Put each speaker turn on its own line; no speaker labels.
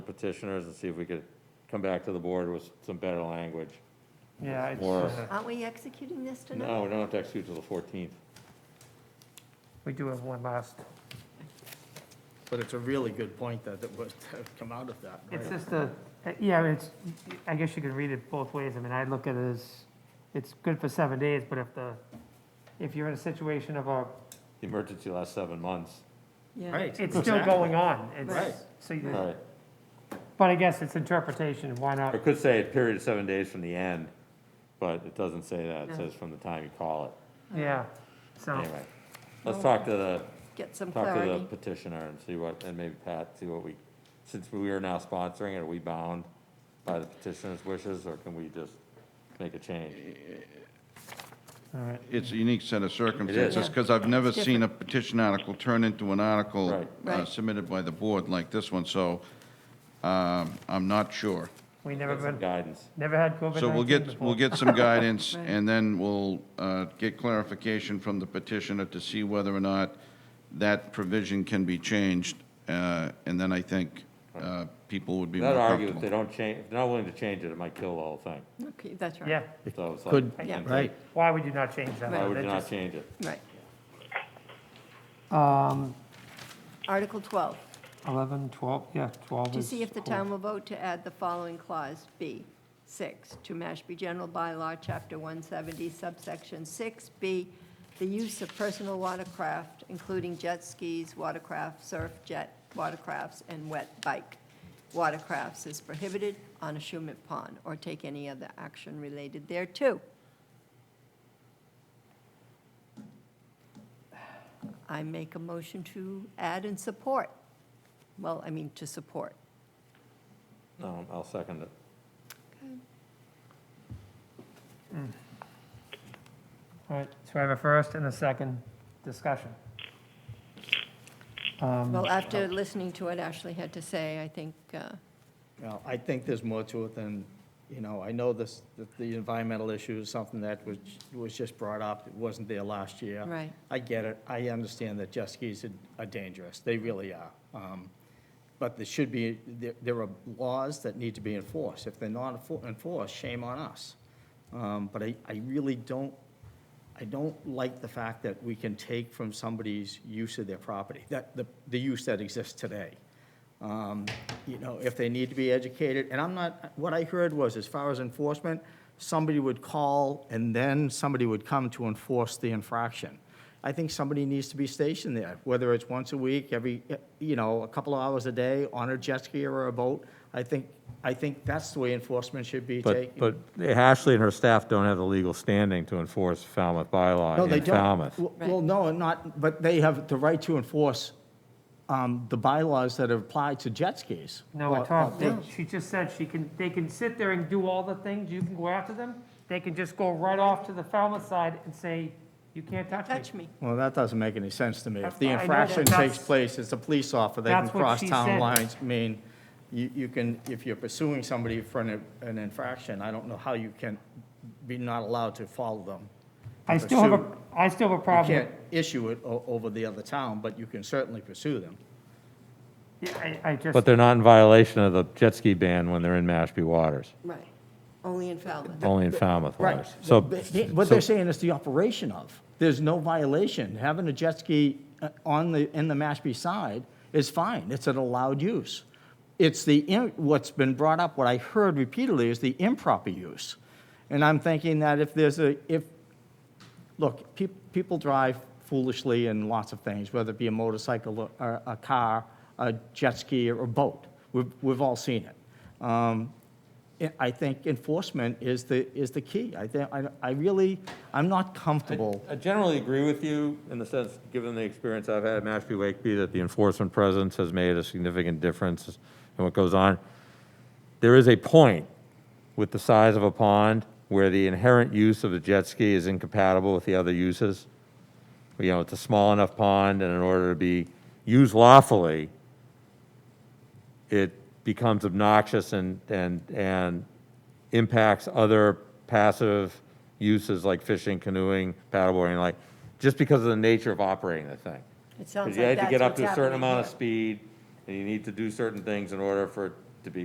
petitioners and see if we could come back to the board with some better language.
Yeah, it's,
Or-
uh,
Aren't we executing this tonight?
No, we don't have to execute till the 14th.
we do have one last,
But it's a really good point that, that was, that come out of that,
it's
right?
just a, Uh, yeah, it's, I guess you could read it both ways. I mean, I look at it as, it's good for seven days, but if the, if you're in a situation of a,
The emergency lasts seven months.
Yeah.
Right.
it's still going on. It's-
Right.
So, you-
Right.
but I guess it's interpretation, why
I
not?
could say a period of seven days from the end, but it doesn't say that. It
No.
says from the time you call it.
Yeah, so,
Anyway, let's talk to the,
Get some
talk to the
clarity.
petitioner and see what, and maybe Pat, see what we, since we are now sponsoring it, are we bound by the petitioner's wishes, or can we just make a change?
all right.
It's a unique set of circumstances,
Yeah.
because I've never
It's
seen a petition article turn into an article
Right.
uh,
Right.
submitted by the board like this one, so um, I'm not sure.
We never
Get some
been,
Guidance.
never had COVID-19
So we'll get,
before.
we'll get some guidance,
Right.
and then we'll uh, get clarification from the petitioner to see whether or not that provision can be changed, uh, and then I think uh, people would be more
That argue, if they
comfortable.
don't change, if they're not willing to change it, it might kill the whole thing.
Okay, that's right.
Yeah,
So it's like.
Could,
I can't-
right,
why would you not change that?
Why
Right.
would you
That
not
just-
change it?
Right.
Um,
Article 12,
11, 12, yeah, 12
to
is
see if the
cool.
town will vote to add the following clause, B, 6, to Mashpee General Bylaw, Chapter 170, subsection 6B, the use of personal watercraft, including jet skis, watercraft, surf jet, watercrafts, and wet bike. Watercrafts is prohibited on a Shumet pond, or take any other action related thereto. I make a motion to add and support. Well, I mean, to support.
No, I'll second it.
All right, so I have a first and a second discussion. Um,
Well, after listening to what Ashley had to say, I think, uh,
Well, I think there's more to it than, you know, I know this, that the environmental issue is something that was, was just brought up, it wasn't there last year.
Right.
I get it, I understand that jet skis are- are dangerous, they really are. Um, But there should be, there, there are laws that need to be enforced, if they're not enfor- enforced, shame on us. Um, But I, I really don't, I don't like the fact that we can take from somebody's use of their property, that, the, the use that exists today. Um, You know, if they need to be educated, and I'm not, what I heard was, as far as enforcement, somebody would call, and then somebody would come to enforce the infraction. I think somebody needs to be stationed there, whether it's once a week, every, you know, a couple of hours a day, on a jet ski or a boat. I think, I think that's the way enforcement should be taken.
But, but Ashley and her staff don't have the legal standing to enforce Falmouth
No,
bylaw
they
in
don't.
Falmouth.
W- Well, no, not, but they have the right to enforce um, the bylaws that apply to jet skis. uh,
No, we're
Or-
talking,
or-
she just said she can, they can sit there and do all the things, you can go after them, they can just go right off to the Falmouth side and say, you can't touch me.
touch me.
Well, that doesn't make any sense to me. If the
That's- I know,
infraction
but
takes
that's-
place, it's a police officer, they can
That's what
cross
she
town
said.
lines. I mean, you, you can, if you're pursuing somebody for an an infraction, I don't know how you can be not allowed to follow them.
I still have a, I still have a
You
problem.
can't issue it o- over the other town, but you can certainly pursue them.
Yeah, I, I just,
But they're not in violation of the jet ski ban when they're in Mashpee waters,
Right. Only in Falmouth.
only in Falmouth waters. So,
What they're saying is the operation of. There's no violation. Having a jet ski uh, on the, in the Mashpee side is fine. It's an allowed use. It's the, im- what's been brought up, what I heard repeatedly is the improper use. And I'm thinking that if there's a, if, look, peop people drive foolishly in lots of things, whether it be a motorcycle or- or a car, a jet ski or a boat. We've, we've all seen it. Um, I- I think enforcement is the, is the key. I think, I, I really, I'm not comfortable.
I generally agree with you in the sense, given the experience I've had at Mashpee Wakeby, that the enforcement presence has made a significant difference in what goes on. There is a point with the size of a pond where the inherent use of the jet ski is incompatible with the other uses. You know, it's a small enough pond, and in order to be used lawfully, it becomes obnoxious and, and, and impacts other passive uses like fishing, canoeing, paddleboarding, like, just because of the nature of operating the thing.
It sounds
Because you
like
had to get
that's
up
what's
to a certain
happening
amount of
here.
speed, and you need to do certain things in order for